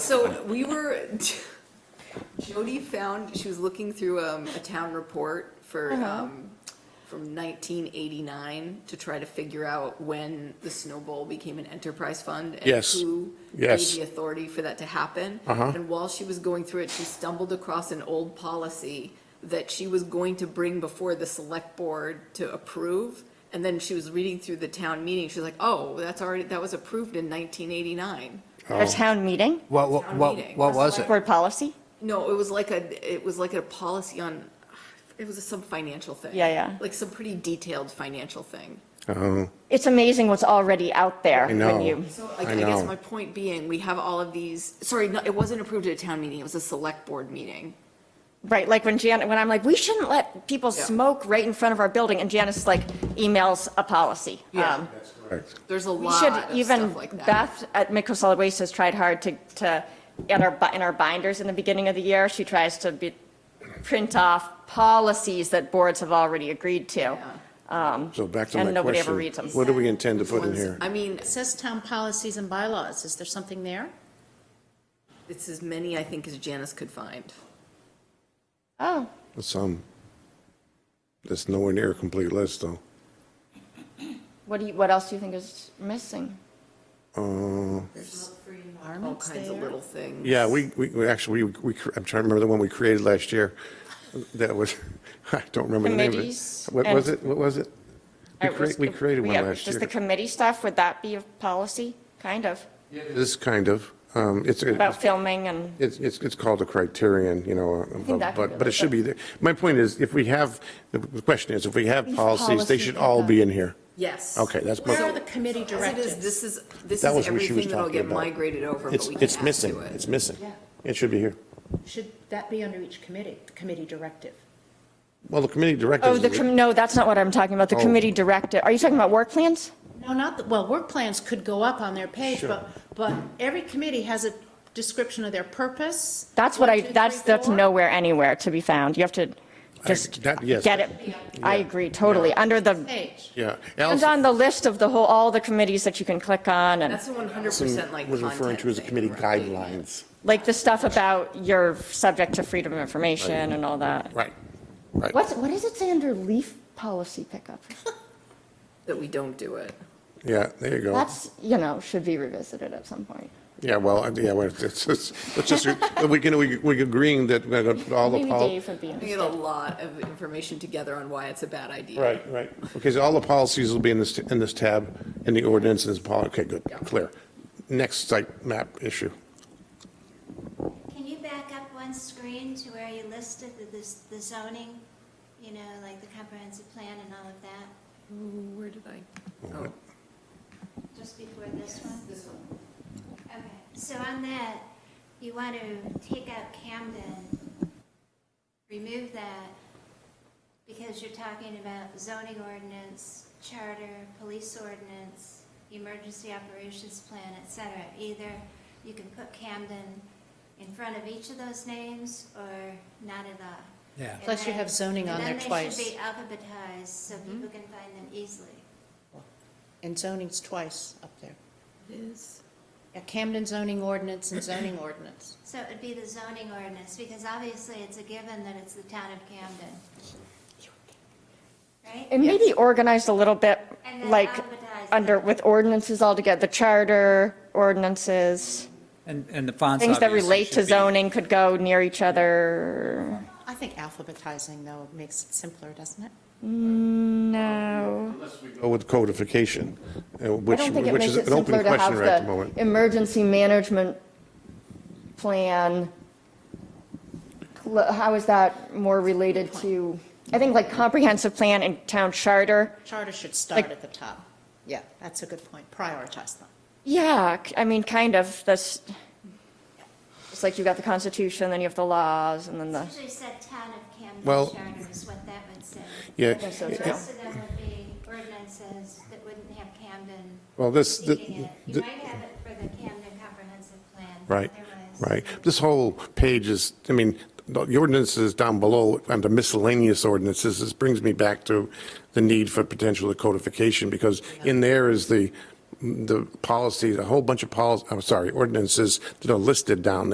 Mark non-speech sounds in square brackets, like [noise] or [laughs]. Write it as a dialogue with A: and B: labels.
A: So we were, [laughs] Jody found, she was looking through um, a town report for,
B: Uh-huh.
A: um, from 1989 to try to figure out when the Snow Bowl became an enterprise fund. and
B: Yes.
A: Who
B: Yes. Uh-huh.
A: gave the authority for that to happen. And while she was going through it, she stumbled across an old policy that she was going to bring before the select board to approve. And then she was reading through the town meeting, she was like, oh, that's already, that was approved in 1989.
B: Oh.
C: At a town meeting,
D: What, what,
A: Town
D: what
A: meeting.
D: what was it?
C: board policy?
A: No, it was like a, it was like a policy on, it was some financial thing.
C: Yeah, yeah.
A: Like some pretty detailed financial thing.
B: Oh,
C: It's amazing what's already out there.
B: I
C: when
B: know.
C: you-
A: So
B: I
A: I I guess
B: know.
A: my point being, we have all of these, sorry, no, it wasn't approved at a town meeting, it was a select board meeting.
C: Right, like when Jan, when I'm like, we shouldn't let people
A: Yeah.
C: smoke right in front of our building, and Janice is like emails a policy.
A: Yeah.
C: Um,
A: There's a
C: We
A: lot
C: should,
A: of
C: even
A: stuff like that.
C: Beth at Midco Solid Waste has tried hard to, to, in our, bi- in our binders in the beginning of the year, she tries to be, print off policies that boards have already agreed to.
B: so back to my question.
C: And nobody ever reads 'em.
B: What do we intend to put in
A: Ones-
B: here?
A: I mean,
E: It says town policies and bylaws. Is there something there?
A: it's as many, I think, as Janice could find.
C: Oh,
B: Some, um, that's nowhere near a complete list, though.
C: what do you, what else do you think is missing?
B: Uh,
E: There's
A: All
E: environments
A: kinds of
E: there.
A: little things.
B: Yeah, we, we, we actually, we, we cr- I'm trying to remember the one we created last year. That was, [laughs] I don't remember the name of it.
C: Committees
B: What was
C: and-
B: it? What was it? We
C: All right,
B: crea-
C: was-
B: we created one
C: yeah,
B: last
C: Does
B: year.
C: the committee stuff, would that be a policy, kind of,
B: This kind of, um, it's, a-
C: about filming and?
B: It's, it's, it's called a criterion, you know,
C: that could
B: but, but
C: be
B: it
C: like
B: should
C: that.
B: be there. My point is, if we have, the question is, if we have
C: These
B: policies, they
C: policies
B: should
C: like
B: all
C: that.
B: be in here.
A: Yes.
B: Okay, that's
E: Where are
B: my,
E: the committee
A: As it is,
E: directives?
A: this is, this
B: That
A: is
B: was what she was
A: everything that'll
B: talking
A: get
B: about.
A: migrated over, but
B: it's,
A: we can
B: it's
A: add
B: missing,
A: to it.
B: it's missing. It should be here.
E: Should that be under each committee, the committee directive?
B: Well, the committee
C: Oh,
B: directives,
C: the, com- no, that's not what I'm talking about, the
B: Oh.
C: committee directed, are you talking about work plans?
E: No, not, the- well, work plans could go up on their page, but, but every committee has a description of their purpose.
C: That's what I,
E: One, two,
C: that's,
E: three,
C: that's
E: four.
C: nowhere anywhere to be found, you have to just
B: that- yes.
C: get it, I agree, totally, under the,
E: Page.
B: yeah.
C: it's
B: Allison
C: on the list of the whole, all the committees that you can click on, and,
A: That's a one hundred percent like
B: was
A: content
B: referring to as the
A: thing,
B: committee
A: right?
B: guidelines.
C: like the stuff about you're subject to freedom of information and all that.
B: Right, right.
C: What's, what does it say under leaf policy pickup?
A: That we don't do it.
B: Yeah, there you go.
C: That's, you know, should be revisited at some point.
B: Yeah, well, yeah, well, it's, it's, it's just, we can, we, we're agreeing that we're gonna put all the.
C: Maybe
B: pol-
C: Dave would be
A: We
C: interested.
A: get a lot of information together on why it's a bad idea.
B: Right, right. Okay, so all the policies will be in this, in this tab, in the ordinance, and this poli, okay, good, clear. Next site map issue.
F: Can you back up one screen to where you listed the, this- the zoning, you know, like the comprehensive plan and all of that,
A: Ooh, Where did I? Oh,
F: just before this one? This one. Okay, so on that, you want to take out Camden, remove that, because you're talking about zoning ordinance, charter, police ordinance, emergency operations plan, et cetera. Either you can put Camden in front of each of those names, or not at all.
D: Yeah.
F: And
E: Plus you
F: then-
E: have zoning on
F: and
E: there
F: Then they
E: twice. Mm-hmm.
F: should be alphabetized, so people can find them easily.
E: And zoning's twice up there.
A: it is.
E: Yeah, Camden zoning ordinance and zoning ordinance.
F: So it would be the zoning ordinance, because obviously it's a given that it's the town of Camden. Right?
C: And maybe organized a little bit,
F: And then
C: like,
F: alphabetize
C: under,
F: them.
C: with ordinances all together, the charter, ordinances,
G: And, and the fonts
C: things that
G: obviously
C: relate to
G: should be-
C: zoning could go near each other.
E: I think alphabetizing, though, makes it simpler, doesn't it?
C: No.
B: Go with codification, uh,
C: I
B: which,
C: don't think it
B: which
C: makes
B: is
C: it
B: an open
C: simpler to have
B: question right at the
C: the
B: moment.
C: emergency management plan. Cl- How is that more related to, I think like comprehensive plan and town charter?
E: Charter should
C: Like-
E: start at the top. Yeah, that's a good point. Prioritize them.
C: Yeah, c- I mean, kind of, that's, it's like you've got the Constitution, then you have the laws, and then the,
F: Usually said town of Camden
B: Well-
F: charter is what that would say.
B: Yeah,
C: so,
F: The
C: too.
F: rest of them would be ordinances that wouldn't have Camden
B: well, this, the-
F: seeking it. You
B: the-
F: might have it for the Camden comprehensive plan.
B: right,
F: otherwise-
B: right. This whole page is, I mean, the the ordinances down below, under miscellaneous ordinances, this brings me back to the need for potential codification, because in there is the the policies, a whole bunch of policies, I'm sorry, ordinances that are listed down there.